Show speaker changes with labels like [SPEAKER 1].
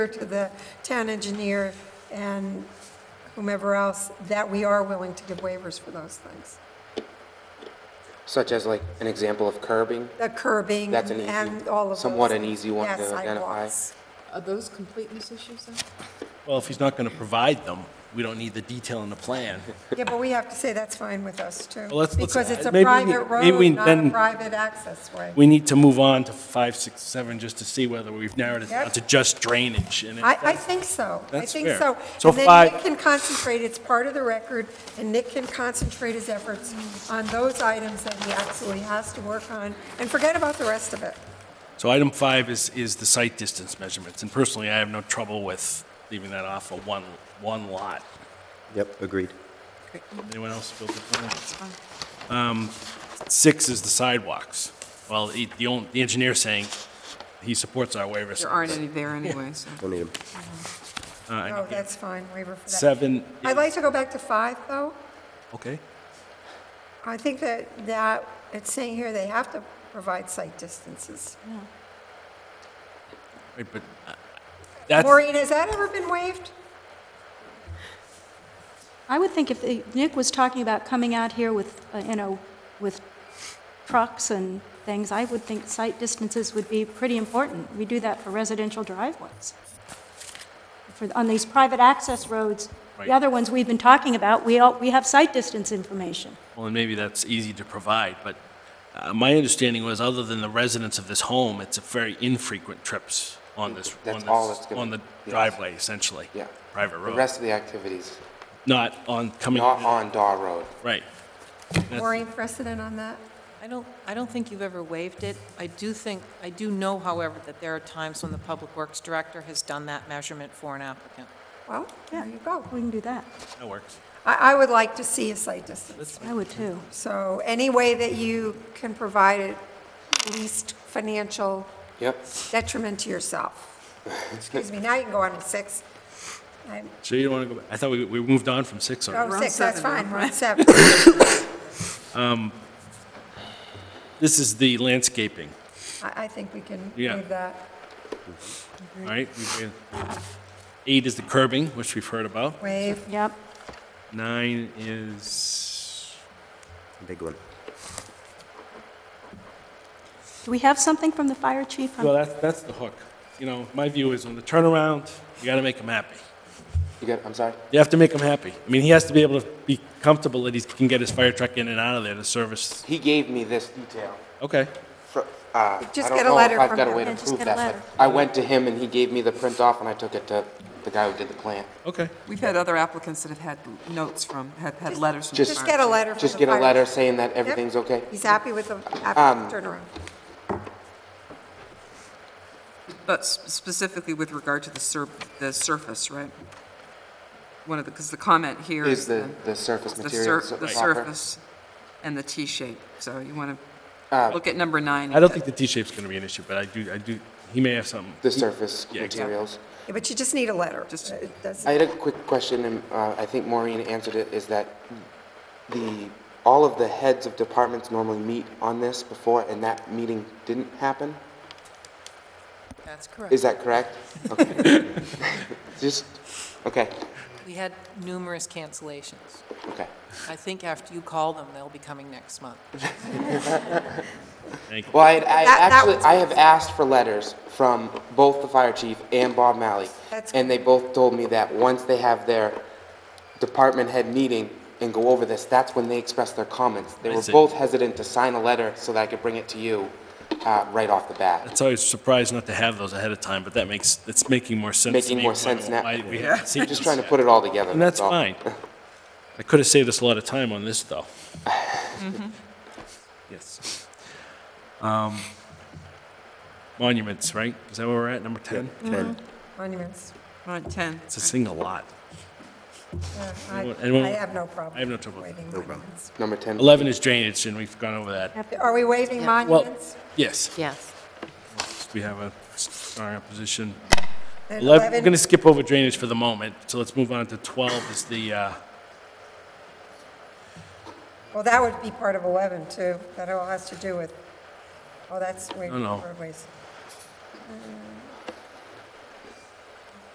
[SPEAKER 1] to the town engineer and whomever else, that we are willing to give waivers for those things.
[SPEAKER 2] Such as like an example of curbing?
[SPEAKER 1] The curbing
[SPEAKER 2] That's an easy-
[SPEAKER 1] and all of those.
[SPEAKER 2] somewhat an easy one
[SPEAKER 1] Yeah,
[SPEAKER 2] to identify.
[SPEAKER 1] sidewalks.
[SPEAKER 3] Are those completeness issues then?
[SPEAKER 4] Well, if he's not going to provide them, we don't need the detail in the plan.
[SPEAKER 1] Yeah, but we have to say that's fine with us too.
[SPEAKER 4] Well, let's- let's-
[SPEAKER 1] Because it's a
[SPEAKER 4] maybe we need-
[SPEAKER 1] private
[SPEAKER 4] maybe we
[SPEAKER 1] road, not a
[SPEAKER 4] then-
[SPEAKER 1] private access way.
[SPEAKER 4] We need to move on to five, six, seven, just to see whether we've narrowed it down
[SPEAKER 1] Yep.
[SPEAKER 4] to just drainage. And if
[SPEAKER 1] I, I
[SPEAKER 4] that's-
[SPEAKER 1] think so. I
[SPEAKER 4] That's
[SPEAKER 1] think
[SPEAKER 4] fair.
[SPEAKER 1] so.
[SPEAKER 4] So
[SPEAKER 1] And then
[SPEAKER 4] five-
[SPEAKER 1] Nick can concentrate, it's part of the record, and Nick can concentrate his efforts on those items that he actually has to work on, and forget about the rest of it.
[SPEAKER 4] So item five is, is the site distance measurements, and personally, I have no trouble with leaving that off of one, one lot.
[SPEAKER 5] Yep, agreed.
[SPEAKER 4] Anyone else feel differently? Um, Six is the sidewalks. Well, the, the only- the engineer's saying he supports our waiver.
[SPEAKER 3] There aren't any there anyway, so.
[SPEAKER 5] Don't need them.
[SPEAKER 4] Uh, I
[SPEAKER 1] No,
[SPEAKER 4] know.
[SPEAKER 1] Oh, that's fine, waiver for that.
[SPEAKER 4] Seven,
[SPEAKER 1] I'd like to go back to five, though.
[SPEAKER 4] okay.
[SPEAKER 1] I think that, that, it's saying here they have to provide site distances.
[SPEAKER 4] Right, but uh, that's,
[SPEAKER 1] Maureen, has that ever been waived?
[SPEAKER 6] I would think if the- Nick was talking about coming out here with, uh, you know, with trucks and things, I would think sight distances would be pretty important. We do that for residential driveways. For, on these private access roads,
[SPEAKER 4] Right.
[SPEAKER 6] the other ones we've been talking about, we all, we have sight distance information.
[SPEAKER 4] well, and maybe that's easy to provide, but uh, my understanding was, other than the residents of this home, it's a very infrequent trips on this, on
[SPEAKER 2] That's all it's
[SPEAKER 4] this,
[SPEAKER 2] gonna-
[SPEAKER 4] on the
[SPEAKER 2] yes.
[SPEAKER 4] driveway, essentially.
[SPEAKER 2] Yeah.
[SPEAKER 4] Private
[SPEAKER 2] The
[SPEAKER 4] road,
[SPEAKER 2] rest of the activities,
[SPEAKER 4] not on coming,
[SPEAKER 2] not on Dar Road.
[SPEAKER 4] right. That's-
[SPEAKER 1] Maureen, precedent on that?
[SPEAKER 7] I don't, I don't think you've ever waived it. I do think, I do know, however, that there are times when the Public Works Director has done that measurement for an applicant.
[SPEAKER 1] Well, there you go.
[SPEAKER 6] We can do that.
[SPEAKER 4] That works.
[SPEAKER 1] I, I would like to see a site distance.
[SPEAKER 6] I would too.
[SPEAKER 1] So any way that you can provide it least financial
[SPEAKER 2] Yep.
[SPEAKER 1] detriment to yourself. Excuse me, now you can go on to six. I'm-
[SPEAKER 4] So you don't want to go back? I thought we, we moved on from six already.
[SPEAKER 1] Oh,
[SPEAKER 3] on
[SPEAKER 1] six, that's
[SPEAKER 3] seven now.
[SPEAKER 1] fine, we're on seven.
[SPEAKER 4] This is the landscaping,
[SPEAKER 1] I, I think we can
[SPEAKER 4] Yeah.
[SPEAKER 1] waive that.
[SPEAKER 4] all right? We've been- Eight is the curbing, which we've heard about.
[SPEAKER 1] Waive,
[SPEAKER 6] Yep.
[SPEAKER 4] Nine is,
[SPEAKER 5] Big one.
[SPEAKER 6] Do we have something from the fire chief? on-
[SPEAKER 4] well, that's, that's the hook. You know, my view is on the turnaround, you got to make them happy.
[SPEAKER 2] You got, I'm sorry?
[SPEAKER 4] You have to make him happy. I mean, he has to be able to be comfortable that he can get his fire truck in and out of there to service.
[SPEAKER 2] He gave me this detail.
[SPEAKER 4] Okay.
[SPEAKER 2] fr- uh,
[SPEAKER 1] Just
[SPEAKER 2] I don't
[SPEAKER 1] get a
[SPEAKER 2] know
[SPEAKER 1] letter
[SPEAKER 2] if I've
[SPEAKER 1] from
[SPEAKER 2] got a
[SPEAKER 1] him.
[SPEAKER 2] way to
[SPEAKER 6] Yeah, just
[SPEAKER 2] prove
[SPEAKER 6] get a
[SPEAKER 2] that, but
[SPEAKER 6] letter.
[SPEAKER 2] I went to him and he gave me the print off and I took it to the guy who did the plan.
[SPEAKER 4] Okay.
[SPEAKER 3] We've had other applicants that have had notes from, have had letters from. the
[SPEAKER 2] Just-
[SPEAKER 1] just
[SPEAKER 3] fire
[SPEAKER 1] get a
[SPEAKER 3] chief.
[SPEAKER 1] letter from
[SPEAKER 2] Just
[SPEAKER 1] the
[SPEAKER 2] get a
[SPEAKER 1] fire-
[SPEAKER 2] letter saying that
[SPEAKER 1] Yep.
[SPEAKER 2] everything's okay. Um,
[SPEAKER 1] He's happy with the app- turnaround.
[SPEAKER 3] But s- specifically with regard to the sur, the surface, right? One of the, because the comment here
[SPEAKER 2] Is
[SPEAKER 3] is
[SPEAKER 2] the,
[SPEAKER 3] the.
[SPEAKER 2] the surface
[SPEAKER 3] the
[SPEAKER 2] material
[SPEAKER 3] sur-
[SPEAKER 2] so-
[SPEAKER 3] The
[SPEAKER 2] proper?
[SPEAKER 3] surface and the T-shape, so you want to
[SPEAKER 2] Ah.
[SPEAKER 3] look at number nine.
[SPEAKER 4] I don't think the T-shape's going to be an issue, but I do, I do, he may have something.
[SPEAKER 2] The surface
[SPEAKER 4] Yeah, exactly.
[SPEAKER 2] materials.
[SPEAKER 1] Yeah, But you just need a letter. Uh,
[SPEAKER 3] Just-
[SPEAKER 1] It doesn't-
[SPEAKER 2] I had a quick question, and uh, I think Maureen answered it, is that the, all of the heads of departments normally meet on this before, and that meeting didn't happen?
[SPEAKER 7] That's correct.
[SPEAKER 2] Is that correct? Okay. Just, okay,
[SPEAKER 7] We had numerous cancellations.
[SPEAKER 2] okay.
[SPEAKER 7] I think after you call them, they'll be coming next month.
[SPEAKER 4] Thank you.
[SPEAKER 2] Well, I, I
[SPEAKER 1] That- that
[SPEAKER 2] actually,
[SPEAKER 1] one's-
[SPEAKER 2] I have asked for letters from both the fire chief and Bob Malley.
[SPEAKER 1] That's
[SPEAKER 2] And they both told me that once they have their department head meeting and go over this, that's when they express their comments. They
[SPEAKER 4] I
[SPEAKER 2] were
[SPEAKER 4] see.
[SPEAKER 2] both hesitant to sign a letter so that I could bring it to you, uh, right off the bat.
[SPEAKER 4] It's always surprised not to have those ahead of time, but that makes, it's making more sense. to
[SPEAKER 2] Making
[SPEAKER 4] me
[SPEAKER 2] more
[SPEAKER 4] why-
[SPEAKER 2] sense now.
[SPEAKER 4] why we haven't seen
[SPEAKER 2] Just
[SPEAKER 4] this
[SPEAKER 2] trying to
[SPEAKER 4] yet.
[SPEAKER 2] put it all together.
[SPEAKER 4] And that's
[SPEAKER 2] all.
[SPEAKER 4] fine. I could have saved us a lot of time on this, though. Mm-hmm. Yes. Um, Monuments, right? Is that where we're at, number 10?
[SPEAKER 5] Ten.
[SPEAKER 1] Monuments. Uh,
[SPEAKER 3] On ten.
[SPEAKER 4] It's a single lot.
[SPEAKER 1] Yeah, I
[SPEAKER 4] Anyone-
[SPEAKER 1] I have no problem.
[SPEAKER 4] I have no trouble with
[SPEAKER 1] waiving
[SPEAKER 4] that.
[SPEAKER 1] monuments.
[SPEAKER 2] Number ten.
[SPEAKER 4] 11 is drainage, and we've gone over that.
[SPEAKER 1] Are we waiving
[SPEAKER 4] Well,
[SPEAKER 1] monuments?
[SPEAKER 4] yes,
[SPEAKER 7] Yes.
[SPEAKER 4] we have a strong opposition.
[SPEAKER 1] And
[SPEAKER 4] 11, we're
[SPEAKER 1] 11?
[SPEAKER 4] going to skip over drainage for the moment, so let's move on to 12 is the, uh,
[SPEAKER 1] Well, that would be part of 11, too. That all has to do with, oh, that's
[SPEAKER 4] No, no.
[SPEAKER 1] waiving roadways.